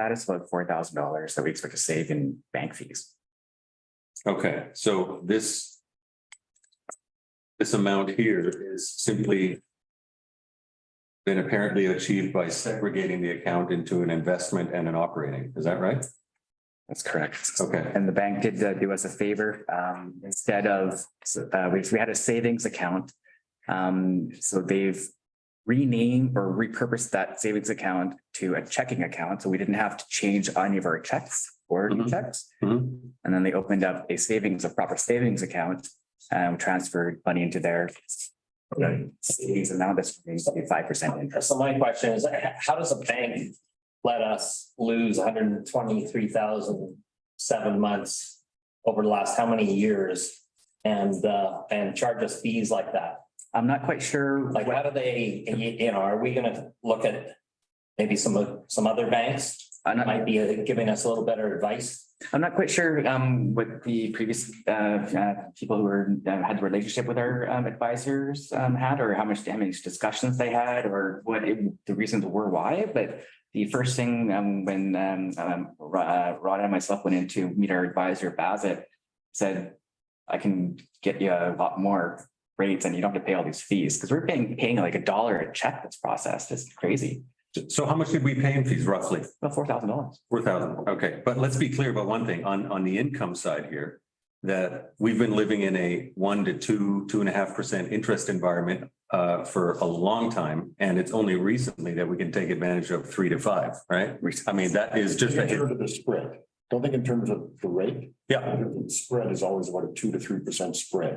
That is about four thousand dollars that we expect to save in bank fees. Okay, so this. This amount here is simply. Been apparently achieved by segregating the account into an investment and an operating, is that right? That's correct. Okay, And the bank did uh, do us a favor, um, instead of, uh, we, we had a savings account. Um, so they've renamed or repurposed that savings account to a checking account, so we didn't have to change any of our checks or new Mhm. checks. Mhm. And then they opened up a savings, a proper savings account, and transferred money into their savings amount that's five percent interest. So my question is, how does a bank let us lose hundred and twenty-three thousand seven months over the last how many years? And, uh, and charge us fees like that? I'm not quite sure. Like, how do they, you you know, are we gonna look at maybe some of, some other banks I'm that not- might be uh, giving us a little better advice? I'm not quite sure um what the previous uh uh people who were uh, had the relationship with our um advisors um had or how much damage discussions they had or what it- the reasons were why, but the first thing um when um um Ro- uh, Rod and myself went in to meet our advisor Bassett said, I can get you a lot more rates and you don't have to pay all these fees because we're paying paying like a dollar a check that's processed. It's crazy. so how much did we pay in fees roughly? About four thousand dollars. Four thousand, okay, but let's be clear about one thing, on, on the income side here. That we've been living in a one to two, two and a half percent interest environment uh, for a long time. And it's only recently that we can take advantage of three to five, right? I mean, that is just, In a terms of the spread, don't think in terms of the rate, yeah, the spread is always about a two to three percent spread.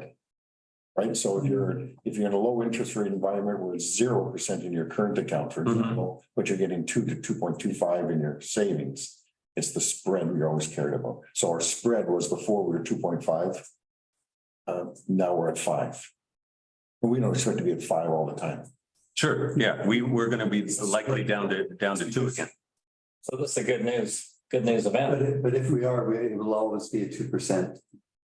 Right, so if you're, if you're in a low interest rate environment where it's zero percent in your current account, for Mhm. example, but you're getting two to two point two five in your savings. It's the spread we always cared about, so our spread was before we were two point five. Uh, now we're at five. And We don't expect to be at five all the time. sure, yeah, we, we're gonna be likely down to, down to two again. So this is a good news, good news event. But if, but if we are, we- it will always be a two percent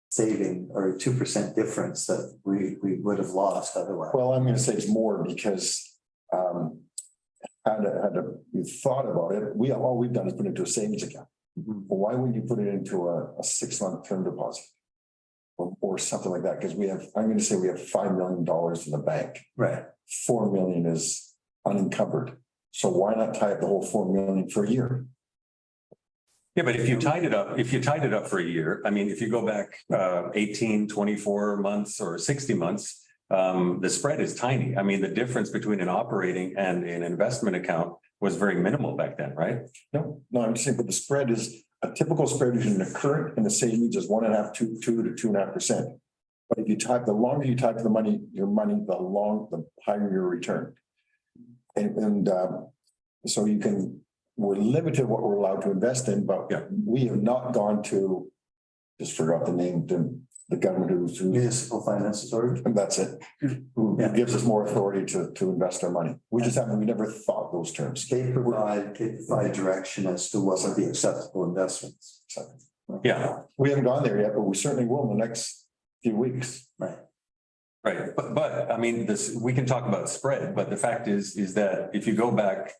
saving or a two percent difference that we, we would have lost otherwise. Well, I'm gonna say it's more because, um, had, had you thought about it, we, all we've done is put it into a savings account. Well, Why wouldn't you put it into a, a six-month term deposit? Or, or something like that, because we have, I'm gonna say we have five million dollars in the bank, Right, four million is unencumbered. So why not tie up the whole four million for a year? Yeah, but if you tied it up, if you tied it up for a year, I mean, if you go back uh 18, 24 months or sixty months. Um, the spread is tiny. I mean, the difference between an operating and an investment account was very minimal back then, right? No, no, I'm just saying, but the spread is, a typical spread between the current and the savings is one and a half, two, two to two and a half percent. But if you type, the longer you type the money, your money, the long, the higher your return. And, and, um, so you can, we're limited what we're allowed to invest in, but Yeah. we have not gone to, just forgot the name, the, the government who's, who, municipal finance authority. Hmm. and that's it. Who Yeah. gives us more authority to, to invest our money. We just haven't, we never thought those terms. They provide, they provide direction as to what are the acceptable investments. So- Yeah, We haven't gone there yet, but we certainly will in the next few weeks. right. But but I mean, this, we can talk about spread, but the fact is, is that if you go back.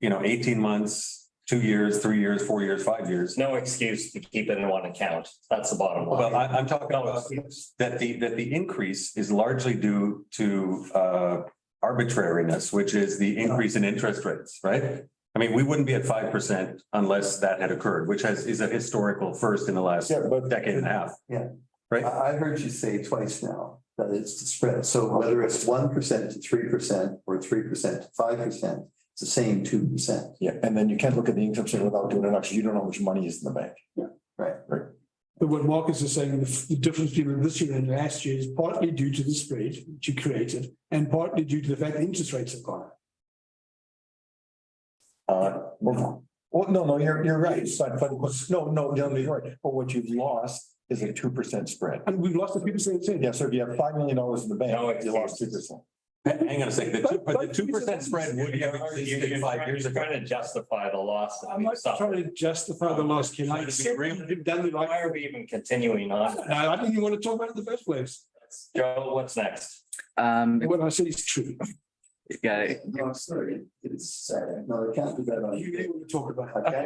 You know, eighteen months, two years, three years, four years, five years. No excuse to keep it in one account. That's the bottom line. Well, I I'm talking No about excuse. that the, that the increase is largely due to uh, arbitrariness, which is the increase in interest rates, right? I mean, we wouldn't be at five percent unless that had occurred, which has, is a historical first in the last Yeah, but decade and a half. I, I heard you say twice now that it's the spread. So whether it's one percent to three percent or three percent to five percent, it's the same two percent. Yeah, and then you can't look at the income statement without doing it, because you don't know how much money is in the bank. But what Marcus is saying, the, f- the difference between this year and last year is partly due to the spread which you created and partly due to the fact that interest rates have gone up. Uh, well, well, no, no, you're, you're right, but, but, no, no, no, you're right, but what you've lost is a two percent spread. And we've lost the people saying, Yeah, so if you have five million dollars in the No, bank, it's- you lost two percent. Hang on a second, the two, but the two percent spread would have existed five years ago. Trying to justify the loss. that I'm we not suffered. trying to justify the loss, Ken. I Trying to be accept real. that you've done the right- Why are we even continuing on? No, I didn't even want to talk about it in the first place. Joe, what's next? Um, What I said is true. Yeah, No, I'm sorry, it's, uh, no, it can't be that on. You may want to talk about. Okay.